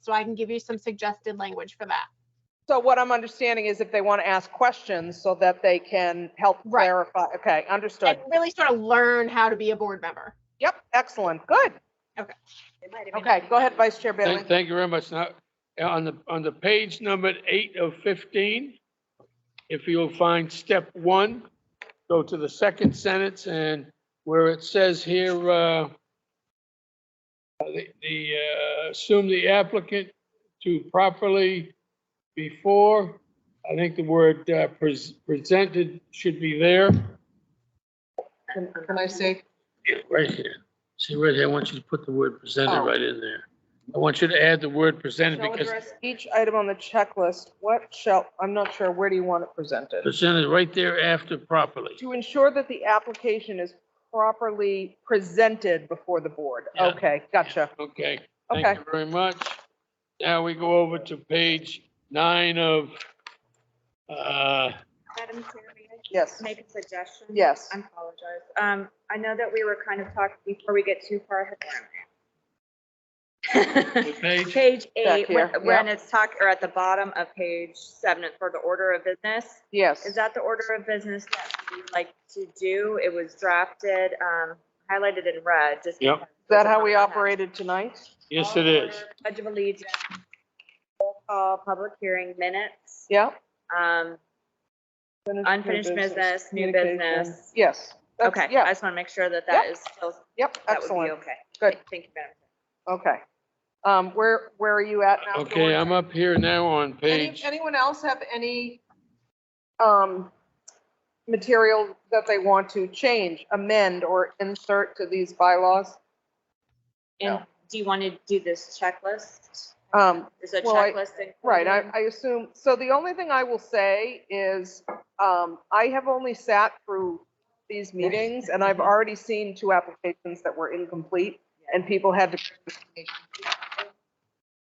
so I can give you some suggested language for that. So what I'm understanding is if they want to ask questions so that they can help Right. clarify. Okay, understood. And really sort of learn how to be a board member. Yep, excellent, good. It might have been- Okay, go ahead, Vice Chair Bailey. Thank, thank you very much. Now, uh, on the, on the page numbered eight of 15, if you'll find step one, go to the second sentence and where it says here, uh, the, the, uh, assume the applicant to properly before, I think the word uh, pres- presented should be there. Can I say? Yeah, Right here. See right here, I want you to put the word presented right in there. I want you to add the word presented Shall because address each item on the checklist. What shall, I'm not sure, where do you want it presented? presented right there after properly. To ensure that the application is properly presented before the board. Yeah. Okay, gotcha. Okay, Okay. thank you very much. Now we go over to page nine of, uh, Madam Chair, may I Yes, make a suggestion? yes. I apologize. Um, I know that we were kind of talking before we get too far. what page? Page Back eight, when here, when it's talk, or at the bottom of page seven, for the order of business. Yes. Is that the order of business that we would like to do? It was drafted, um, highlighted in red, just. Yep. because- Is that how we operated tonight? Yes, it is. Pledge of allegiance, roll call, public hearing minutes, Yeah? um, unfinished business, new communication. business. Yes. that's- Okay, I Yeah, just want to make sure that that is still, yep, that would be excellent. okay. Good. Thank you, Madam. Okay. Um, where, where are you at now? Okay, I'm up here now on Any- page, Anyone else have any, um, material that they want to change, amend, or insert to these bylaws? Chair. And do you want to do this checklist? Um, There's a Well, I- checklist. included? Right, I, I assume, so the only thing I will say is, um, I have only sat through these meetings and I've already seen two applications that were incomplete and people had to.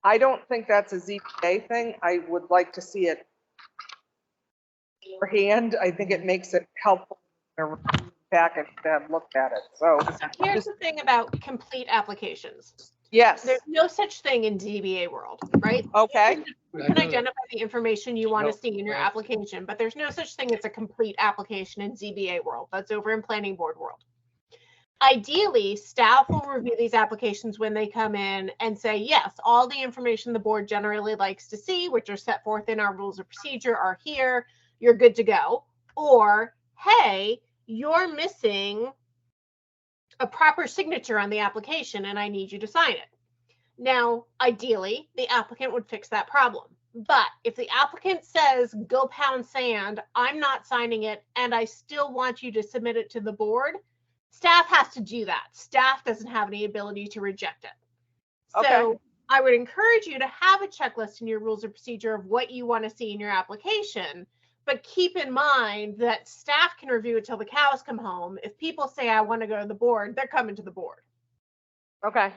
I don't think that's a ZBA thing. I would like to see it beforehand. I think it makes it helpful to back and have looked at it. So, Here's the thing about complete applications. yes, There's no such thing in DBA world, right? okay, You can identify the information you want No, to see in your right. application, but there's no such thing as a complete application in ZBA world. That's over in planning board world. Ideally, staff will review these applications when they come in and say, yes, all the information the board generally likes to see, which are set forth in our rules of procedure are here. You're good to go. Or, hey, you're missing a proper signature on the application and I need you to sign it. Now, ideally, the applicant would fix that problem. But if the applicant says, go pound sand, I'm not signing it, and I still want you to submit it to the board, staff has to do that. Staff doesn't have any ability to reject it. Okay. So I would encourage you to have a checklist in your rules of procedure of what you want to see in your application. But keep in mind that staff can review it till the cows come home. If people say, I want to go to the board, they're coming to the board. okay.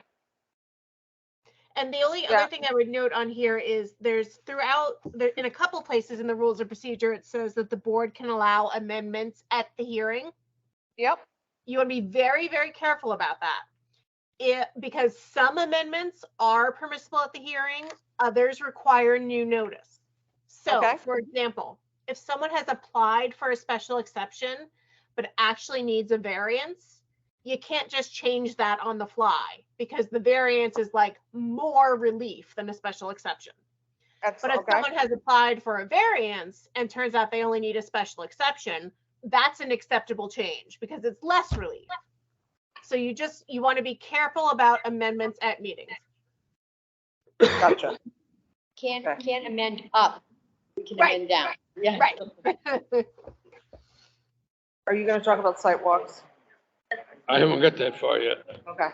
And the only Yeah. other thing I would note on here is there's throughout, there, in a couple places in the rules of procedure, it says that the board can allow amendments at the hearing. Yep, You want to be very, very careful about that. It, because some amendments are permissible at the hearing, others require new notice. So, Okay. for example, if someone has applied for a special exception but actually needs a variance, you can't just change that on the fly because the variance is like more relief than a special exception. But excellent, if okay. someone has applied for a variance and turns out they only need a special exception, that's an acceptable change because it's less relief. So you just, you want to be careful about amendments at meetings. Gotcha. Can't, Okay. can't amend up, we can Right, amend down. Yeah. right. Are you gonna talk about sidewalks? I haven't got that far yet. Okay.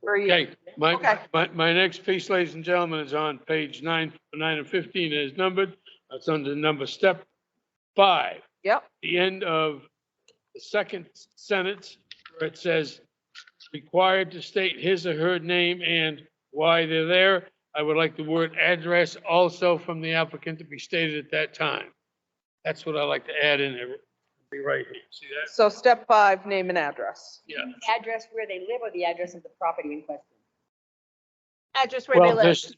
Where are you? Okay, my, Okay. my, my next piece, ladies and gentlemen, is on page nine, nine and 15 is numbered. That's under number step five. Yep, the end of the second sentence where it says, required to state his or her name and why they're there. I would like the word address also from the applicant to be stated at that time. That's what I like to add in there. Be right here. See that? so step five, name and address. Yeah. Address where they live or the address of the property in question. address where they Well, live. there's,